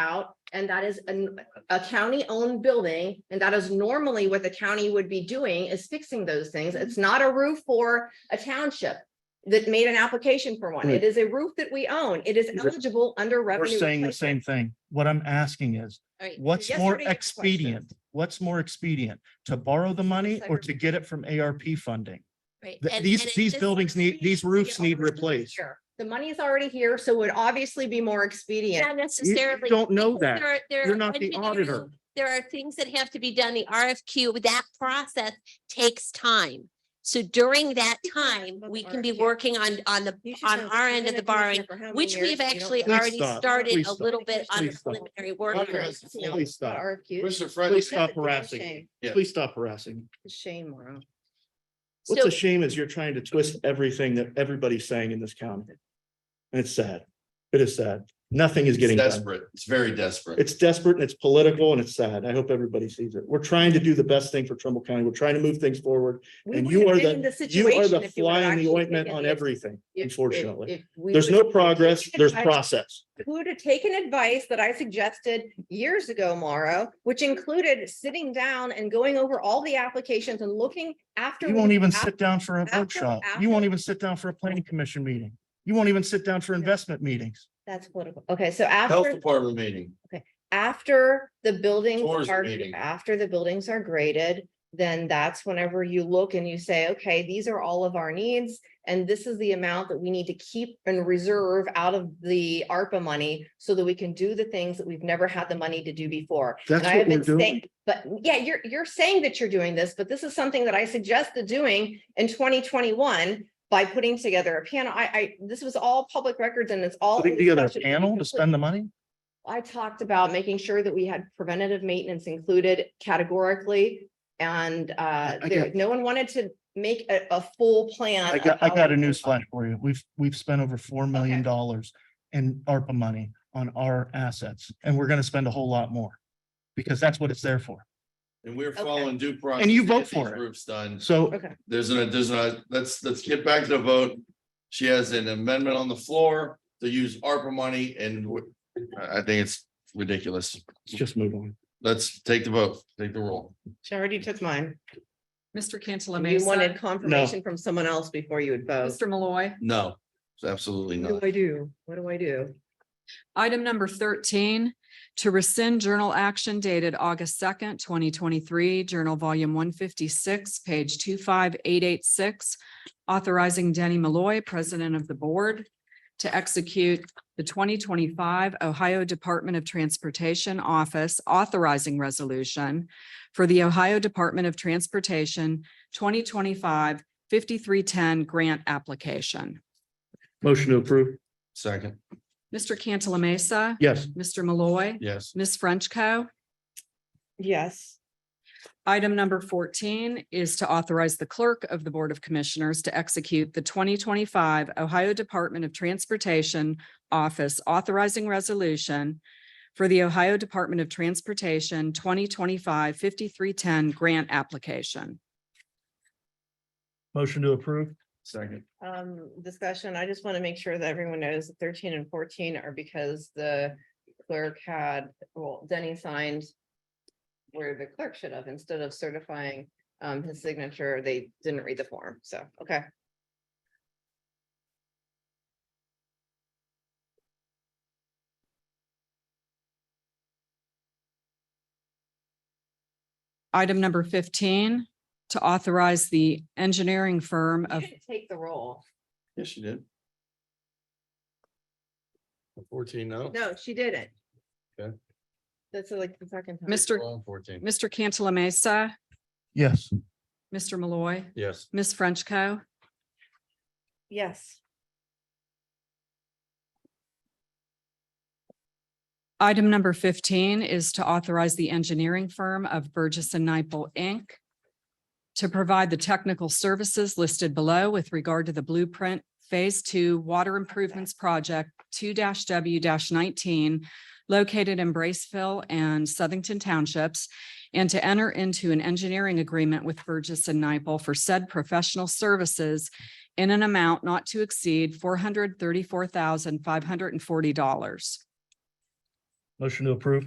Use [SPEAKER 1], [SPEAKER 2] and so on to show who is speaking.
[SPEAKER 1] out, and that is an- a county-owned building, and that is normally what the county would be doing is fixing those things. It's
[SPEAKER 2] Mm-hmm.
[SPEAKER 1] not a roof for a township that made an application for one. It is a roof that we own. It is eligible under
[SPEAKER 2] We're
[SPEAKER 1] revenue.
[SPEAKER 2] saying the
[SPEAKER 1] replacement.
[SPEAKER 2] same thing. What I'm asking is,
[SPEAKER 3] Alright,
[SPEAKER 2] what's
[SPEAKER 1] yes or
[SPEAKER 2] more
[SPEAKER 1] no to your question.
[SPEAKER 2] expedient? What's more expedient? To borrow the money or
[SPEAKER 1] Cyber-
[SPEAKER 2] to get it from ARP funding?
[SPEAKER 3] right,
[SPEAKER 2] Th-
[SPEAKER 3] and-
[SPEAKER 2] these-
[SPEAKER 3] and it
[SPEAKER 2] these
[SPEAKER 3] just-
[SPEAKER 2] buildings need- these
[SPEAKER 3] Yeah,
[SPEAKER 2] roofs need
[SPEAKER 3] already
[SPEAKER 2] replaced.
[SPEAKER 3] here.
[SPEAKER 1] The money is already here, so it would obviously be more expedient.
[SPEAKER 3] Not
[SPEAKER 2] You-
[SPEAKER 3] necessarily.
[SPEAKER 2] You don't know
[SPEAKER 3] There
[SPEAKER 2] that.
[SPEAKER 3] are- there
[SPEAKER 2] You're
[SPEAKER 3] are
[SPEAKER 2] not the
[SPEAKER 3] engineering-
[SPEAKER 2] auditor.
[SPEAKER 3] There are things that have to be done, the RFQ, that process takes time. So during that time, we can be
[SPEAKER 1] RFQ.
[SPEAKER 3] working on, on the, on our end of the borrowing, which we've actually
[SPEAKER 2] Please
[SPEAKER 3] already
[SPEAKER 2] stop.
[SPEAKER 3] started
[SPEAKER 2] Please
[SPEAKER 3] a
[SPEAKER 2] stop.
[SPEAKER 3] little bit on the
[SPEAKER 2] Please stop.
[SPEAKER 3] preliminary work.
[SPEAKER 2] Please
[SPEAKER 3] on it.
[SPEAKER 2] stop. Please stop.
[SPEAKER 1] RFQ,
[SPEAKER 4] Mr. Fred,
[SPEAKER 2] Please stop harassing. me.
[SPEAKER 4] Yeah.
[SPEAKER 2] Please stop harassing. me.
[SPEAKER 1] shame, Mauro.
[SPEAKER 2] What's
[SPEAKER 3] So-
[SPEAKER 2] a shame is you're trying to twist everything that everybody's saying in this county. And it's sad. It is sad. Nothing is
[SPEAKER 4] it's
[SPEAKER 2] getting done.
[SPEAKER 4] desperate. It's very desperate.
[SPEAKER 2] It's desperate and it's political and it's sad. I hope everybody sees it. We're trying to do the best thing for Trumble County. We're trying to move things forward. And you are the- You are the fly in the ointment on everything, unfortunately. There's no progress, there's process.
[SPEAKER 1] Who to take an advice that I suggested years ago, Mauro, which included sitting down and going over all the applications and looking after.
[SPEAKER 2] You
[SPEAKER 1] we-
[SPEAKER 2] won't even
[SPEAKER 1] after-
[SPEAKER 2] sit down for a
[SPEAKER 1] after-
[SPEAKER 2] workshop. You won't
[SPEAKER 1] after-
[SPEAKER 2] even sit down for a planning commission meeting. You won't even sit down for investment meetings.
[SPEAKER 1] That's political. Okay, so
[SPEAKER 4] Health
[SPEAKER 1] after,
[SPEAKER 4] Department meeting.
[SPEAKER 1] after the buildings
[SPEAKER 4] Tourism
[SPEAKER 1] are,
[SPEAKER 4] meeting.
[SPEAKER 1] after the buildings are graded, then that's whenever you look and you say, okay, these are all of our needs. And this is the amount that we need to keep and reserve out of the ARPA money so that we can do the things that we've never had the money to do before.
[SPEAKER 2] That's
[SPEAKER 1] And I have
[SPEAKER 2] what we're
[SPEAKER 1] been
[SPEAKER 2] doing.
[SPEAKER 1] saying, but yeah, you're, you're saying that you're doing this, but this is something that I suggested doing in twenty twenty-one by putting together a panel. I, I, this was all public records and it's all. in
[SPEAKER 2] Putting
[SPEAKER 1] the
[SPEAKER 2] together a
[SPEAKER 1] spreadsheet.
[SPEAKER 2] panel to spend the money?
[SPEAKER 1] I talked about making sure that we had preventative maintenance included categorically. And uh,
[SPEAKER 2] I
[SPEAKER 1] there,
[SPEAKER 2] got-
[SPEAKER 1] no one wanted to make a, a full plan.
[SPEAKER 2] I
[SPEAKER 1] of
[SPEAKER 2] got, I
[SPEAKER 1] how
[SPEAKER 2] got a
[SPEAKER 1] we-
[SPEAKER 2] news flash for you. We've, we've spent over four million dollars in ARPA money on our assets, and we're gonna spend a whole lot more. Because that's what it's there for.
[SPEAKER 4] And we're following due process.
[SPEAKER 2] And you
[SPEAKER 4] to get
[SPEAKER 2] vote for
[SPEAKER 4] these
[SPEAKER 2] it.
[SPEAKER 4] Roofs done.
[SPEAKER 2] So
[SPEAKER 1] Okay,
[SPEAKER 4] There's an, there's a, let's, let's get back to the vote. She has an amendment on the floor to use ARPA money and w- I, I think it's ridiculous.
[SPEAKER 2] let's just move on.
[SPEAKER 4] Let's take the vote, take the roll.
[SPEAKER 1] she already took mine.
[SPEAKER 5] Mr. Cantala
[SPEAKER 1] You wanted
[SPEAKER 5] Mesa,
[SPEAKER 1] confirmation from someone else before you would vote.
[SPEAKER 5] Mr. Malloy.
[SPEAKER 4] No, it's absolutely
[SPEAKER 1] What do
[SPEAKER 4] not.
[SPEAKER 1] I do? What do I do?
[SPEAKER 5] Item number thirteen, to rescind journal action dated August second, twenty twenty-three, Journal Volume one fifty-six, page two five eight eight six, authorizing Denny Malloy, President of the Board, to execute the twenty twenty-five Ohio Department of Transportation Office authorizing resolution for the Ohio Department of Transportation 2025-5310 grant application.
[SPEAKER 2] Motion to approve.
[SPEAKER 4] Second,
[SPEAKER 5] Mr. Cantala Mesa.
[SPEAKER 2] Yes.
[SPEAKER 5] Mr. Malloy.
[SPEAKER 4] yes,
[SPEAKER 5] Ms. Frenchco.
[SPEAKER 1] Yes.
[SPEAKER 5] Item number fourteen is to authorize the clerk of the Board of Commissioners to execute the twenty twenty-five Ohio Department of Transportation Office authorizing resolution for the Ohio Department of Transportation 2025-5310 grant application.
[SPEAKER 2] Motion to approve.
[SPEAKER 4] second,
[SPEAKER 1] Um, discussion, I just want to make sure that everyone knows that thirteen and fourteen are because the clerk had, well, Denny signed. Where the clerk should have, instead of certifying um his signature, they didn't read the form, so, okay.
[SPEAKER 5] Item number fifteen, to authorize the engineering firm
[SPEAKER 1] You
[SPEAKER 5] of
[SPEAKER 1] didn't Take the roll.
[SPEAKER 4] yes, you did. Fourteen, no?
[SPEAKER 1] No, she didn't.
[SPEAKER 4] Okay.
[SPEAKER 1] That's like the second. time.
[SPEAKER 5] Mr.
[SPEAKER 4] Wrong, Fourteen,
[SPEAKER 5] Mr. Cantala Mesa,
[SPEAKER 2] Yes.
[SPEAKER 5] Mr. Malloy,
[SPEAKER 4] yes,
[SPEAKER 5] Ms. Frenchco.
[SPEAKER 1] Yes.
[SPEAKER 5] Item number fifteen is to authorize the engineering firm of Burgess and Nyepel, Inc. to provide the technical services listed below with regard to the blueprint Phase Two Water Improvements Project two W nineteen located in Braceville and Southington Townships, and to enter into an engineering agreement with Burgess and Nyepel for said professional services in an amount not to exceed four hundred thirty-four thousand five hundred and forty dollars.
[SPEAKER 2] Motion to approve.